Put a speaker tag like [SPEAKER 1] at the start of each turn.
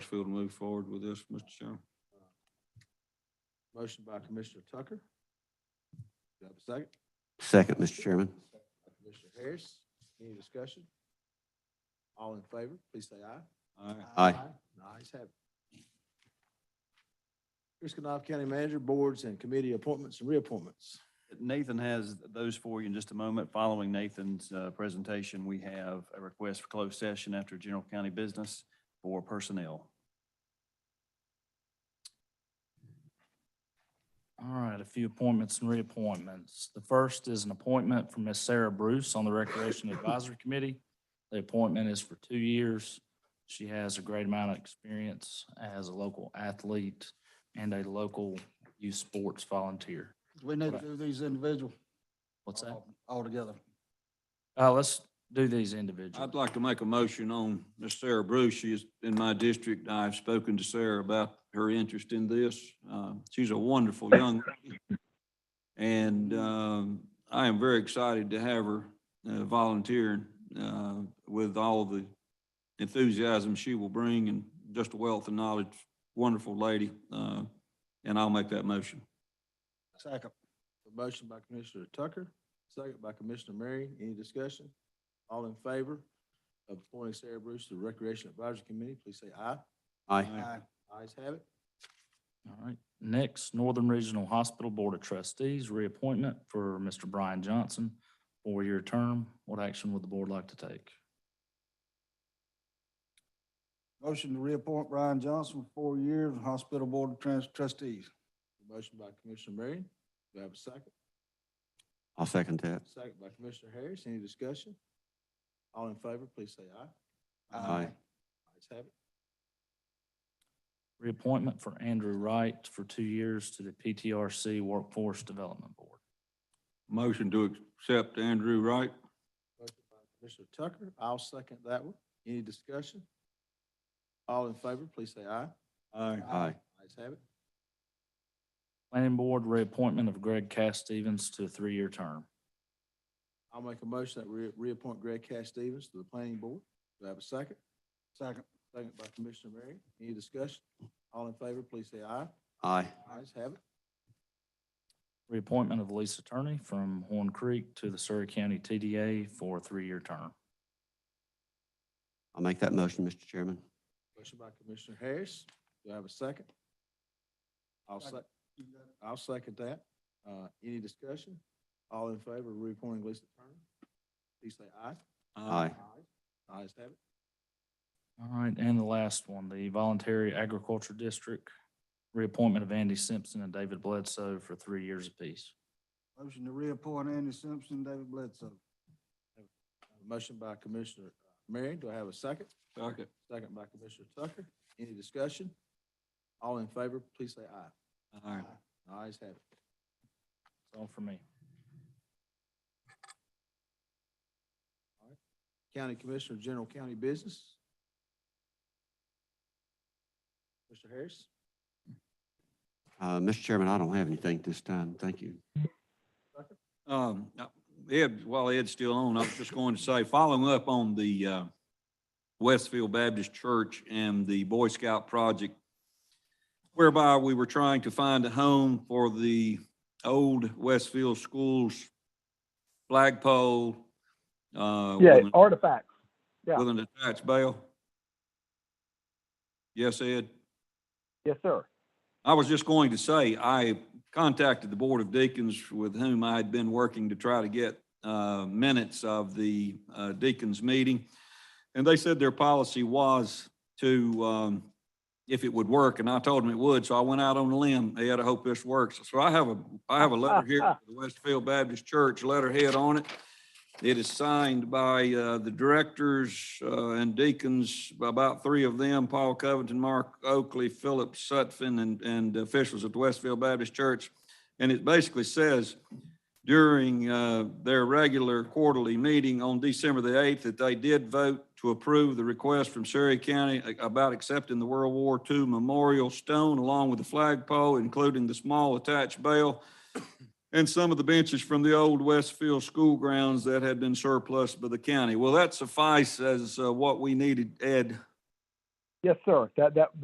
[SPEAKER 1] Nashville to move forward with this, Mr. Chairman.
[SPEAKER 2] Motion by Commissioner Tucker. Do I have a second?
[SPEAKER 3] Second, Mr. Chairman.
[SPEAKER 2] by Commissioner Harris. Any discussion? All in favor, please say aye.
[SPEAKER 1] All right.
[SPEAKER 3] Aye.
[SPEAKER 2] The ayes have it. Kristkinoff County Manager, Boards and Committee Appointments and Reappointments.
[SPEAKER 4] Nathan has those for you in just a moment. Following Nathan's uh, presentation, we have a request for closed session after general county business for personnel.
[SPEAKER 5] All right, a few appointments and reappointments. The first is an appointment for Miss Sarah Bruce on the Recreation Advisory Committee. The appointment is for two years. She has a great amount of experience as a local athlete and a local youth sports volunteer.
[SPEAKER 6] We need to
[SPEAKER 5] Right.
[SPEAKER 6] do these individual.
[SPEAKER 5] What's that?
[SPEAKER 6] all together.
[SPEAKER 5] Uh, let's do these individually.
[SPEAKER 1] I'd like to make a motion on Miss Sarah Bruce. She is in my district. I've spoken to Sarah about her interest in this. Uh, She's a wonderful young lady. And um, I am very excited to have her uh, volunteering uh, with all the enthusiasm she will bring and just a wealth of knowledge. Wonderful lady. Uh, And I'll make that motion.
[SPEAKER 6] Second.
[SPEAKER 2] A motion by Commissioner Tucker, second by Commissioner Murray. Any discussion? All in favor of appointing Sarah Bruce to the Recreation Advisory Committee, please say aye.
[SPEAKER 3] Aye.
[SPEAKER 6] Aye.
[SPEAKER 2] Ayes have it.
[SPEAKER 5] All right. Next, Northern Regional Hospital Board of Trustees, reappointment for Mr. Brian Johnson, four-year term. What action would the board like to take?
[SPEAKER 6] Motion to reappoint Brian Johnson for four years, Hospital Board of Trans- Trustees.
[SPEAKER 2] A Motion by Commissioner Marion. Do I have a second?
[SPEAKER 3] I'll second that.
[SPEAKER 2] Second by Commissioner Harris. Any discussion? All in favor, please say aye.
[SPEAKER 3] Aye.
[SPEAKER 2] Ayes have it.
[SPEAKER 5] Reappointment for Andrew Wright for two years to the PTRC Workforce Development Board.
[SPEAKER 1] Motion to accept Andrew Wright.
[SPEAKER 2] Motion by Commissioner Tucker. I'll second that one. Any discussion? All in favor, please say aye.
[SPEAKER 1] Aye.
[SPEAKER 3] Aye.
[SPEAKER 2] Ayes have it.
[SPEAKER 5] Planning Board, reappointment of Greg Cass Stevens to a three-year term.
[SPEAKER 2] I'll make a motion that we reappoint Greg Cash Stevens to the planning board. Do I have a second?
[SPEAKER 6] Second.
[SPEAKER 2] Second by Commissioner Murray. Any discussion? All in favor, please say aye.
[SPEAKER 3] Aye.
[SPEAKER 2] Ayes have it.
[SPEAKER 5] Reappointment of Lisa Attorney from Horn Creek to the Surrey County TDA for a three-year term.
[SPEAKER 3] I'll make that motion, Mr. Chairman.
[SPEAKER 2] Motion by Commissioner Harris. Do I have a second? I'll
[SPEAKER 6] Second.
[SPEAKER 2] sec, I'll second that. Uh, any discussion? All in favor of reappointing Lisa Turner? Please say aye.
[SPEAKER 1] Uh,
[SPEAKER 3] Aye.
[SPEAKER 2] Ayes have it.
[SPEAKER 5] All right, and the last one, the Voluntary Agriculture District, reappointment of Andy Simpson and David Bledsoe for three years apiece.
[SPEAKER 6] Motion to reappoint Andy Simpson, David Bledsoe.
[SPEAKER 2] Motion by Commissioner Marion. Do I have a second?
[SPEAKER 1] Second.
[SPEAKER 2] Second by Commissioner Tucker. Any discussion? All in favor, please say aye.
[SPEAKER 1] Aye.
[SPEAKER 2] Ayes have it.
[SPEAKER 5] That's all for me.
[SPEAKER 2] County Commissioner, General County Business. Mr. Harris?
[SPEAKER 3] Uh, Mr. Chairman, I don't have anything this time. Thank you.
[SPEAKER 1] Um, uh, Ed, while Ed's still on, I was just going to say, following up on the, uh, Westfield Baptist Church and the Boy Scout project, whereby we were trying to find a home for the old Westfield Schools flagpole. uh,
[SPEAKER 7] Yeah,
[SPEAKER 1] with an-
[SPEAKER 7] artifacts. yeah.
[SPEAKER 1] With an attached bell. Yes, Ed?
[SPEAKER 7] Yes, sir.
[SPEAKER 1] I was just going to say, I contacted the Board of Deacons with whom I had been working to try to get uh, minutes of the uh, deacons meeting. And they said their policy was to, um, if it would work, and I told them it would, so I went out on a limb. Ed, I hope this works. So I have a, I have a letter here, for the Westfield Baptist Church letterhead on it. It is signed by uh, the directors uh, and deacons, about three of them, Paul Covington, Mark Oakley, Philip Sutphen, and, and officials at the Westfield Baptist Church. And it basically says during uh, their regular quarterly meeting on December the 8th that they did vote to approve the request from Surrey County a- about accepting the World War II memorial stone along with the flagpole, including the small attached bell and some of the benches from the old Westfield school grounds that had been surplus by the county. Will that suffice as uh, what we needed, Ed?
[SPEAKER 7] Yes, sir. That, that,